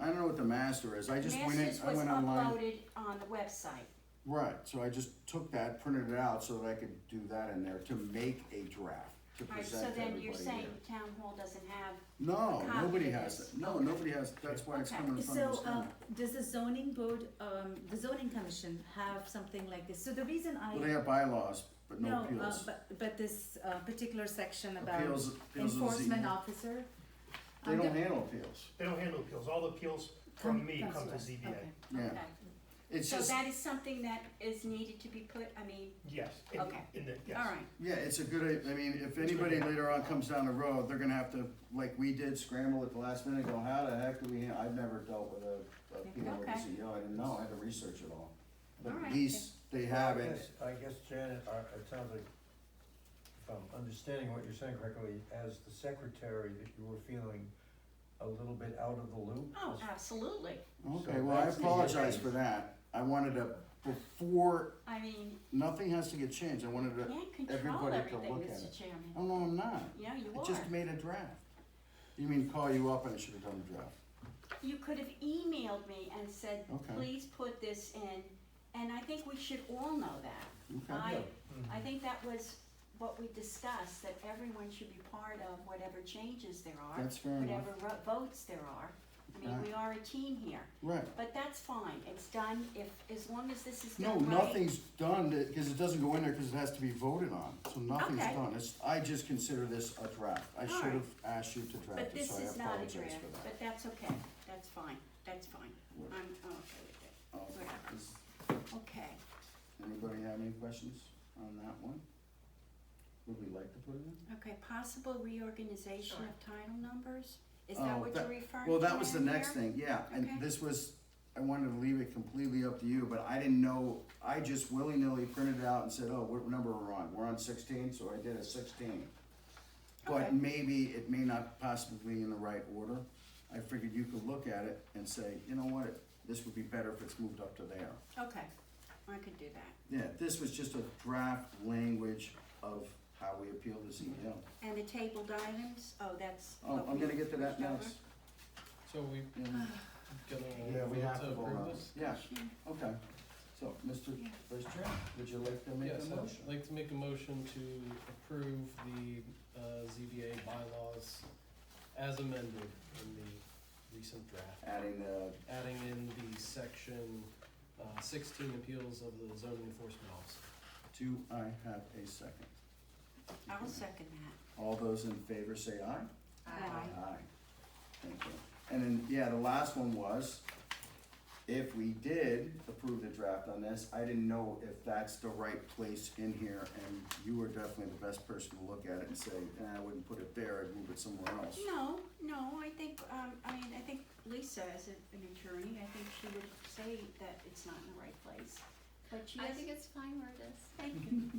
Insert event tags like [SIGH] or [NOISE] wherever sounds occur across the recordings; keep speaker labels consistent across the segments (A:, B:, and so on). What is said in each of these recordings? A: I don't know what the master is, I just went in,
B: Masters
A: I
B: was
A: went online,
B: uploaded on the website.
A: right, so I just took that, printed it out so that I could do that in there to make a draft, to
B: Alright, so
A: present to
B: then you're
A: everybody
B: saying
A: here.
B: town hall doesn't have,
A: No,
B: copy
A: nobody
B: of
A: has
B: this.
A: it, no, nobody has, that's why it's
B: Okay.
A: coming in front of us
C: So,
A: now.
C: uh, does the zoning board, um, the zoning commission have something like this? So the reason I.
A: Well, they have bylaws, but no
C: No, uh,
A: appeals.
C: but, but this, uh, particular section about
A: Appeals, appeals of the
C: enforcement
A: ZBA.
C: officer.
A: They
C: um,
A: don't
C: the-
A: handle appeals,
D: They don't handle appeals, all the appeals
C: come-
D: from me
C: comes
D: come to
C: us.
D: ZBA.
C: Okay.
A: yeah,
B: okay,
A: it's
B: so
A: just,
B: that is something that is needed to be put, I mean,
D: Yes, in,
B: Okay.
D: in the, yes.
B: alright,
A: yeah, it's a good, I mean, if anybody later on comes down the road, they're gonna have to, like we did, scramble at the last minute, go, how the heck do we, ha-" I've never dealt with a, a appeal with a
B: Okay.
A: CEO, I didn't know, I had to research it all. But
B: All
A: at
B: right.
A: least they have
E: I
A: it,
E: guess- I guess Janet, I- it sounds like, if I'm understanding what you're saying correctly, as the secretary, that you were feeling a little bit out of the loop.
B: oh,
E: as-
B: absolutely,
A: okay,
E: So
A: well, I
E: that's the
A: apologize
E: thing.
A: for that, I wanted to, before,
B: I mean,
A: nothing has to get changed, I wanted
B: you
A: to,
B: can't control
A: everybody to
B: everything,
A: look at it.
B: Mr. Chairman.
A: oh, no, I'm not,
B: Yeah, you
A: I
B: are,
A: just made a draft. You mean call you up and I should've done the draft?
B: you could have emailed me and said,
A: Okay.
B: please put this in, and I think we should all know that.
A: Okay.
B: I, I think that was what we discussed, that everyone should be part of whatever changes there are.
A: That's fair enough.
B: Whatever ro- votes there are. I mean,
A: Okay.
B: we are a team here,
A: Right.
B: but that's fine, it's done if, as long as this is
A: No,
B: done right.
A: nothing's done, because it doesn't go in there, because it has to be voted on, so nothing's
B: Okay.
A: done, it's, I just consider this a draft, I
B: All
A: should have asked you to draft
B: But
A: it,
B: this
A: so I
B: is not a
A: apologize for
B: draft,
A: that.
B: but that's okay, that's fine, that's fine,
A: What-
B: I'm, I'm okay with it,
A: oh,
B: whatever.
A: does
B: okay.
A: Anybody have any questions on that one? Would we like to put it in?
B: Okay, possible reorganization of title numbers, is that
A: Oh,
B: what
A: that-
B: you're referring to
A: Well, that was the
B: down
A: next
B: here?
A: thing, yeah, and
B: Okay.
A: this was, I wanted to leave it completely up to you, but I didn't know, I just willy-nilly printed it out and said, oh, what number we're on, we're on sixteen, so I did a sixteen.
B: Okay.
A: But maybe it may not possibly be in the right order, I figured you could look at it and say, you know what, this would be better if it's moved up to there.
B: Okay, I could do that,
A: Yeah, this was just a draft language of how we appeal this email.
B: and the tabled items, oh, that's.
A: Oh,
B: what
A: I'm
B: we
A: gonna get to that
B: pushed over.
A: next.
F: So we
A: Yeah.
F: gonna
A: Yeah, we have
F: vote
A: to
F: to
A: vote
F: approve
A: on it.
F: this?
A: Yeah, okay. So, Mr.
B: Yeah.
A: Vice Chair, would you like to make
F: Yes,
A: a motion?
F: I'd like to make a motion to approve the, uh, ZBA bylaws as amended in the recent draft,
A: Adding the,
F: adding in the section, uh, sixteen appeals of the zoning enforcement officer.
A: do I have a second?
B: I'll second that.
A: All those in favor say aye?
B: Aye.
A: Thank you. And then, yeah, the last one was, if we did approve the draft on this, I didn't know if that's the right place in here, and you were definitely the best person to look at it and say, eh, I wouldn't put it there, I'd move it somewhere else.
B: No, no, I think, um, I mean, I think Lisa, as a- an attorney, I think she would say that it's not in the right place, but she
G: I
B: has,
G: think it's fine where it is.
B: thank you.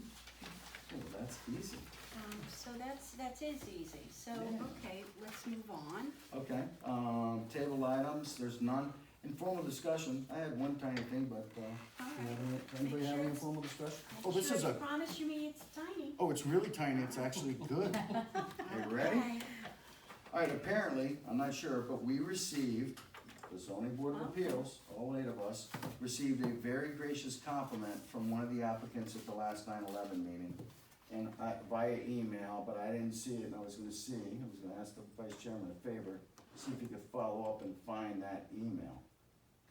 A: Oh, that's easy.
B: Um, so that's, that's is easy, so,
A: Yeah.
B: okay, let's move on.
A: Okay, um, table items, there's none. Informal discussion, I had one tiny thing, but, uh,
B: All
A: do you
B: right.
A: have any- anybody have any
B: it's-
A: informal discussion?
B: I'm
A: Oh, this
B: sure
A: is
B: you
A: a,
B: Promise you me it's tiny.
A: oh, it's really tiny, it's actually [LAUGHS] good. Are you ready?
B: Okay.
A: All right, apparently, I'm not sure, but we received, the zoning board of appeals, all eight of us, received a very gracious compliment from one of the applicants at the last 9/11 meeting. And I, via email, but I didn't see it, and I was gonna see, I was gonna ask the vice chairman a favor, see if he could follow up and find that email.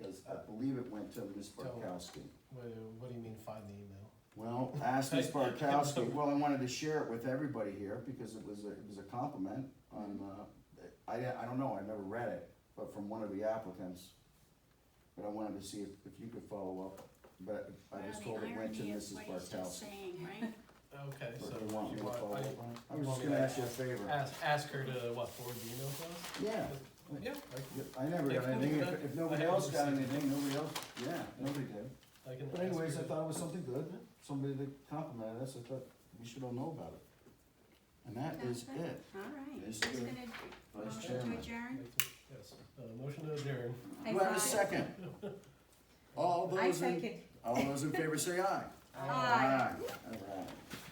A: Cause I believe it went to Ms. Barkowski.
F: What, what do you mean find the email?
A: Well, ask Ms. [LAUGHS] Barkowski, well, I wanted to share it with everybody here, because it was, a- it was a compliment on, uh, I, I don't know, I never read it, but from one of the applicants. But I wanted to see if, if you could follow up, but I was
B: Well,
A: told
B: the
A: it went to
B: irony is
A: Mrs.
B: what he's just
A: Barkowski.
B: saying,
A: [LAUGHS]
B: right?
F: Okay,
A: But
F: so
A: they want me
F: you
A: to follow
F: want,
A: up on it. I was
F: want
A: just
F: me
A: gonna
F: to
A: ask you a
F: I,
A: favor,
F: ask, ask her to, what, forward the email
A: yeah,
F: to us? Yeah, I
A: I never got
F: If-
A: anything, if, if nobody
F: I haven't
A: else got
F: received it.
A: anything, nobody else, yeah, nobody did.
F: can, I can ask her.
A: But anyways, I
F: to-
A: thought it was something good, somebody that complimented us, I thought we should all know about it. And that is
B: Okay.
A: it,
B: All right,
A: Yes,
B: who's
A: sir.
B: gonna,
A: Vice
B: motion
A: Chairman.
B: to adjourn?
F: Yes, uh, motion to adjourn.
A: Do I have a second? All
C: I
A: those in,
C: second.
A: all those in favor say aye.
B: Aye.
A: All right.